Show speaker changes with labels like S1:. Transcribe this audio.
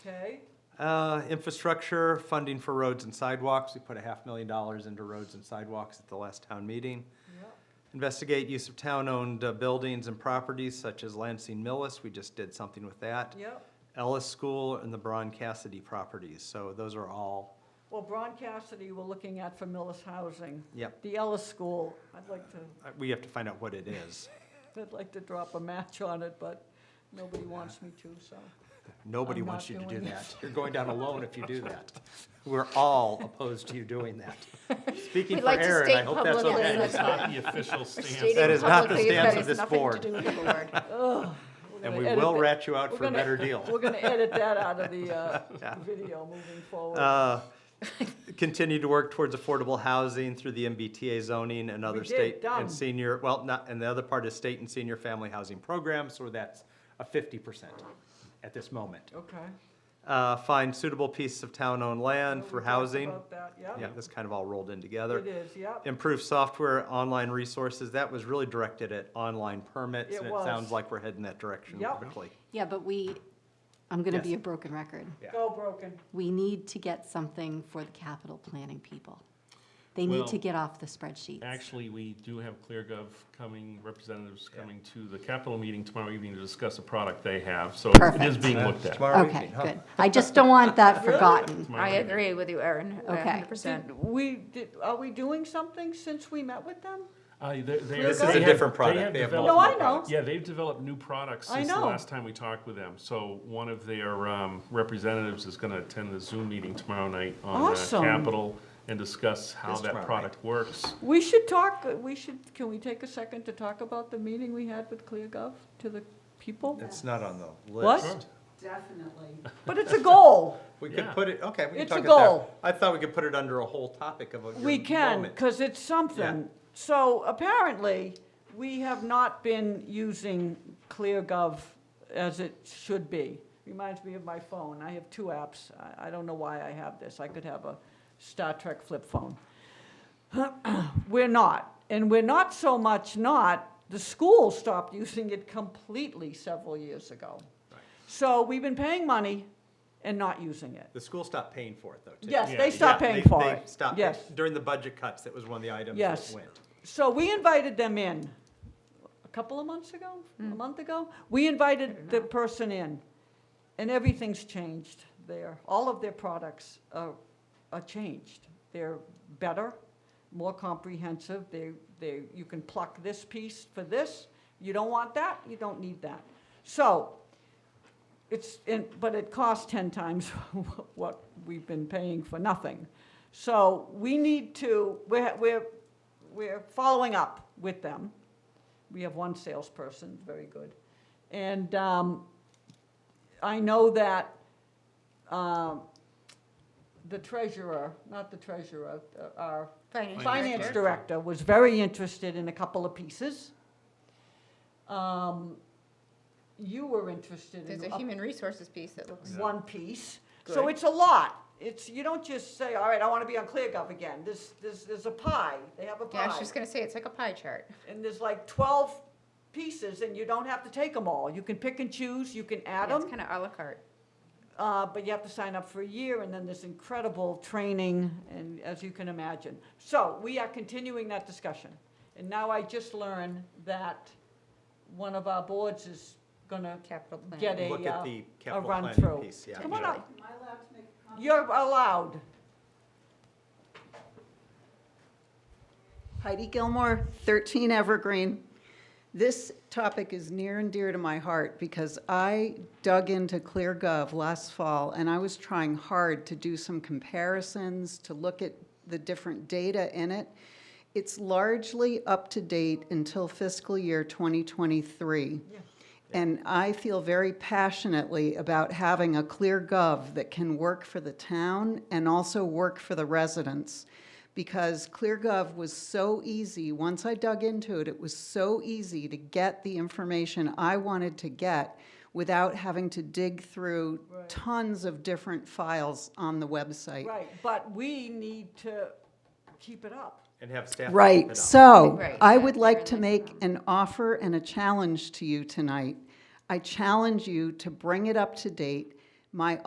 S1: Okay,
S2: Uh, Infrastructure, funding for roads and sidewalks. We put a half million dollars into roads and sidewalks at the last town meeting.
S1: yep,
S2: Investigate use of town-owned uh, buildings and properties such as Lansing Millis. We just did something with that.
S1: yep.
S2: Ellis School and the Braun Cassidy properties. So those are all,
S1: Well, Braun Cassidy, we're looking at for Millis Housing.
S2: yep.
S1: The Ellis School, I'd like to,
S2: Uh, We have to find out what it is.
S1: I'd like to drop a match on it, but nobody wants me to, so.
S2: Nobody
S1: I'm
S2: wants
S1: not
S2: you to do
S1: doing it.
S2: that. You're going down alone if you do that. We're all opposed to you doing that. Speaking
S3: We'd
S2: for
S3: like to
S2: Aaron,
S3: state
S2: I hope that's
S3: publicly
S2: okay.
S3: that-
S4: It's not the official stance.
S3: Stating
S2: is not the
S3: publicly that
S2: stance of
S3: it's
S2: this
S3: nothing to
S2: board.
S3: do with the board.
S1: Ugh, we're
S2: And
S1: gonna
S2: we
S1: edit
S2: will
S1: that-
S2: rat you out
S1: we're
S2: for a
S1: gonna-
S2: better deal.
S1: We're gonna edit that out of the
S2: Yeah.
S1: uh, video moving forward.
S2: Uh, Continue to work towards affordable housing through the MBTA zoning and other
S1: did,
S2: state
S1: done.
S2: and senior, well, not, and the other part is state and senior family housing programs, so that's a fifty percent at this moment.
S1: Okay.
S2: Uh, Find suitable pieces of town-owned land
S1: We
S2: for
S1: talked
S2: housing.
S1: About that,
S2: Yeah,
S1: yep.
S2: this kind of all rolled in together.
S1: It is, yep.
S2: Improve software, online resources, that was really directed at online permits,
S1: It
S2: and it
S1: was.
S2: sounds like we're heading that direction
S1: Yep.
S2: quickly.
S3: Yeah, but we, I'm going to be
S2: Yes.
S3: a broken record.
S2: Yeah.
S1: Go broken.
S3: We need to get something for the capital planning people. They need to
S4: Well-
S3: get off the spreadsheets.
S4: Actually, we do have ClearGov coming, representatives coming to the Capitol meeting tomorrow evening to discuss a product they have, so it is
S3: Perfect.
S4: being looked at.
S2: Tomorrow
S3: Okay,
S2: evening, huh?
S3: good. I just don't want that forgotten.
S4: Tomorrow
S5: I
S4: evening.
S5: agree with you, Erin,
S3: Okay.
S5: hundred percent.
S1: Did we, did, are we doing something since we met with them?
S4: Uh, they- they-
S1: This
S4: they
S1: is a
S4: have-
S2: different
S4: they
S2: product.
S4: have
S2: They have
S4: developed-
S1: No, I know.
S4: Yeah, they've developed new products
S1: I
S4: since the
S1: know.
S4: last time we talked with them. So one of their um, representatives is going to attend the Zoom meeting tomorrow night on uh,
S1: Awesome.
S4: Capitol and discuss how
S2: It's tomorrow
S4: that
S2: night.
S4: product works.
S1: We should talk, we should, can we take a second to talk about the meeting we had with ClearGov to the people?
S2: It's not on the
S1: What?
S2: list.
S6: Definitely.
S1: But it's a goal.
S2: We could
S4: Yeah.
S2: put it, okay, we can
S1: It's a
S2: talk it there.
S1: goal.
S2: I thought we could put it under a whole topic of a.
S1: We
S2: your
S1: can,
S2: moment.
S1: because it's something. So apparently, we have not been using ClearGov as it should be. Reminds me of my phone. I have two apps. I, I don't know why I have this. I could have a Star Trek flip phone. We're not. And we're not so much not, the school stopped using it completely several years ago. So we've been paying money and not using it.
S2: The school stopped paying for it, though, too.
S1: Yes,
S4: Yeah,
S1: they
S4: yeah,
S1: stopped
S2: Yeah,
S1: paying
S2: they-
S1: for
S2: they
S1: it.
S2: stopped it.
S1: Yes.
S2: During the budget cuts, that was one of the items that
S1: Yes.
S2: went.
S1: So we invited them in a couple of months ago, a month ago. We invited the person in, and everything's changed there. All of their products are, are changed. They're better, more comprehensive. They, they, you can pluck this piece for this. You don't want that, you don't need that. So it's, and- but it costs 10 times what we've been paying for nothing. So we need to, we're, we're, we're following up with them. We have one salesperson, very good. And um, I know that um, the treasurer, not the treasurer, uh, our finance director was very interested in a couple of pieces. Um, You were interested in
S5: There's a
S1: a
S5: human resources piece that looks.
S1: one piece. So it's a lot. It's, you don't just say, all right, I want to be on ClearGov again. There's, there's, there's a pie. They have a
S5: Yeah, I was
S1: pie.
S5: just gonna say, it's like a pie chart.
S1: And there's like twelve pieces and you don't have to take them all. You can pick and choose, you can add
S5: Yeah,
S1: them.
S5: It's kind of à la carte.
S1: Uh, but you have to sign up for a year, and then there's incredible training, and as you can imagine. So we are continuing that discussion. And now I just learned that one of our boards is gonna
S5: Capital plan.
S1: get a,
S2: Look at
S1: uh,
S2: the
S1: a
S2: capital
S1: run-through.
S2: planning piece, yeah.
S1: Come on
S4: Yeah.
S1: up,
S6: Am I allowed to make a comment?
S1: you're allowed.
S6: Heidi Gilmore, 13 Evergreen. This topic is near and dear to my heart because I dug into ClearGov last fall and I was trying hard to do some comparisons, to look at the different data in it. It's largely up to date until fiscal year 2023. And I feel very passionately about having a ClearGov that can work for the town and also work for the residents because ClearGov was so easy. Once I dug into it, it was so easy to get the information I wanted to get without having to dig through tons of different files on the website.
S1: Right, but we need to keep it up.
S2: And have staff. pick
S6: Right,
S2: it up.
S6: so
S5: Right,
S6: I
S5: yeah,
S6: would
S5: you're
S6: like
S5: in
S6: to
S5: the
S6: make an offer and a challenge to you tonight. I challenge you to bring it up to date. My